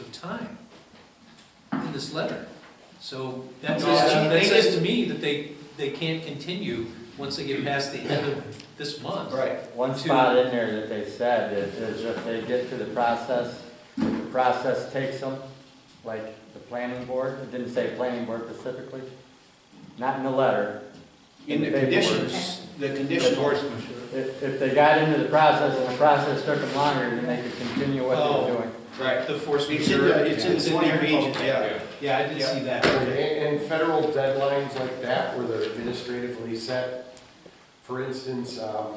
of time in this letter. So that No, says, to- I- that says to me that they, they can't continue once they get past the end of this month. Right. One To- spot in there that they said is, is if they get to the process, the process takes them, like the planning board, it didn't say planning board specifically, not in the letter. In the paperwork. conditions, the conditions. If, if they got into the process and the process took them longer, then they could continue what they were Oh. doing. Right. The force It's in majeure. the, it's in the twenty there? region, yeah. Yeah, I did see that. And, and federal deadlines like that, where they're administratively set, for instance, um,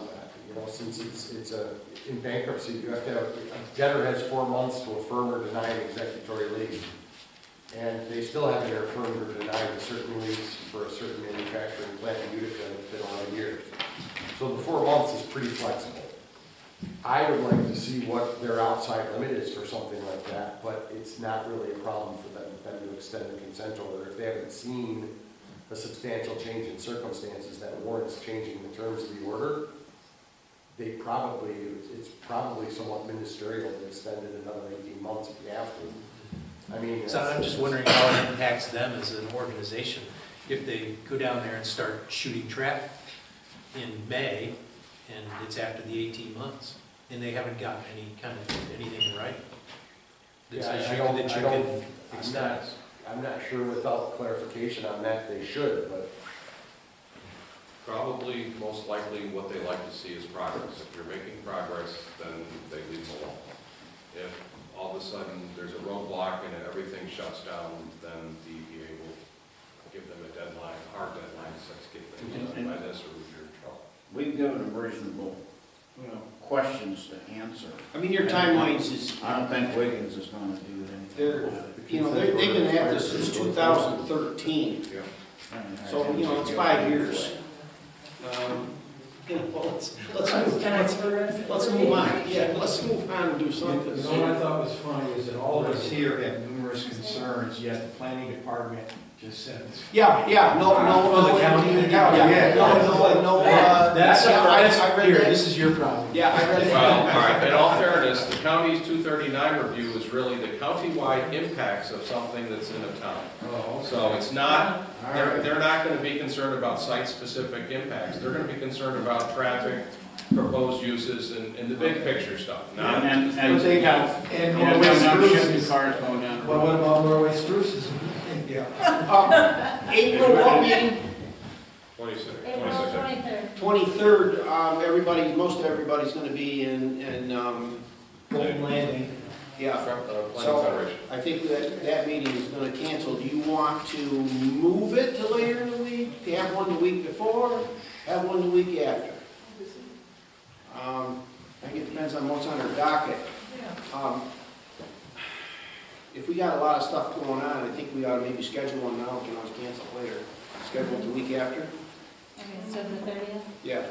you know, since it's, it's a, in bankruptcy, you have to have, a debtor has four months to affirm or deny an executory lien. And they still have their affirm or deny a certain lease for a certain manufacturing plant in Utica that's been around years. So the four months is pretty flexible. I would like to see what their outside limit is for something like that, but it's not really a problem for them, them to extend the consent order if they haven't seen a substantial change in circumstances that warrants changing the terms of the order. They probably, it's probably somewhat ministerial to extend it another eighteen months if you have to. I mean. So I'm just wondering how it impacts them as an organization if they go down there and start shooting trap in May and it's after the 18 months and they haven't gotten any kind of, anything right. Yeah, I don't, I don't, I'm not, I'm not sure without clarification on that, they should, but Probably, most likely, what they like to see is progress. If you're making progress, then they leave it alone. If all of a sudden there's a roadblock and everything shuts down, then the EPA will give them a deadline, hard deadline, says get things done by this or you're in trouble. We've given them reasonable, you know, questions to answer. I mean, your timelines is, I don't think Wiggins is gonna do anything. they're, about it. you know, they're- they've been at this since two thousand thirteen, so, you know, it's five years. Um, You know, let's, let's, move- let's, let's move on, yeah, let's move on and do something. You know what I thought was funny is that all of us here have numerous concerns, yet the planning department just said it's. Yeah, yeah, no, no, no. Oh, the county? Yeah, no, no, no, uh. That's, yeah, I- that's, I read here, that. this is your problem. Yeah, I read Well, all that. right, in all fairness, the county's 239 review is really the countywide impacts of something that's in a town. So it's not They're, they're not gonna be concerned about site-specific impacts, they're gonna be concerned about traffic, proposed uses, and, and the big picture stuff, not, And, But and, they you know, got, uh, and coming up, Norway shipping spruce. cars going down the But road. what about Norway spruces? Yeah. Um, April, what meeting? twenty-six, April twenty-six. twenty-third. Twenty-third, um, everybody, most of everybody's gonna be in, in, um, Golden Landing. yeah. Uh, Planning So, Federation. I think that, that meeting is gonna cancel. Do you want to move it to later in the week? To have one the week before, have one the week after? Um, I think it depends on what's on our docket. Um, If we got a lot of stuff going on, I think we ought to maybe schedule one now, if you want to cancel later. Schedule it the week after? Okay, so the thirtieth? Yeah.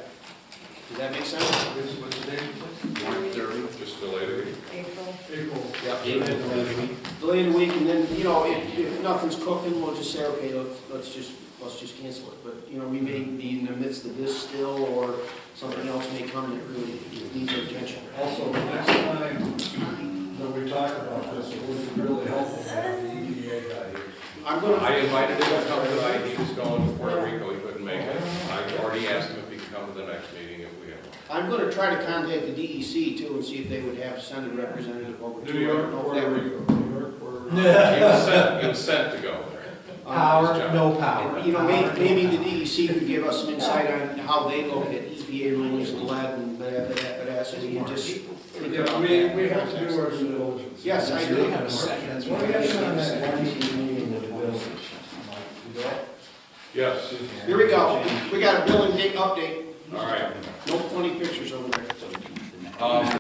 Does that make sense? This was the day before. They're just delayed. April. April. Delay it a week, and then, you know, if, if nothing's cooking, we'll just say, okay, let's, let's just, let's just cancel it. But, you know, we may be in the midst of this still, or something else may come that really needs our attention. Also, the next time that we talk about this, it would be really helpful to have the EDA guy here. I'm I gonna, invited him to come tonight, he was going to Puerto Rico, he couldn't make it, I already asked him if he could come to the next meeting if we have one. I'm gonna try to contact the DEC too, and see if they would have send a representative over. to it. I don't know if Puerto that would- Rico, New York, Puerto Rico. He was sent, he was sent to go there. Power, no power. You know, may- maybe the DEC could give us some insight on how they look at E EPA rulings and lead and that, that, that, so we can just think Yeah, about we, that. we have to do our due diligence. Yes, I do. have a That's why we have on that one meeting with the village. Yes, Here we go. We got a billing date update. all right. No funny pictures over there. Um,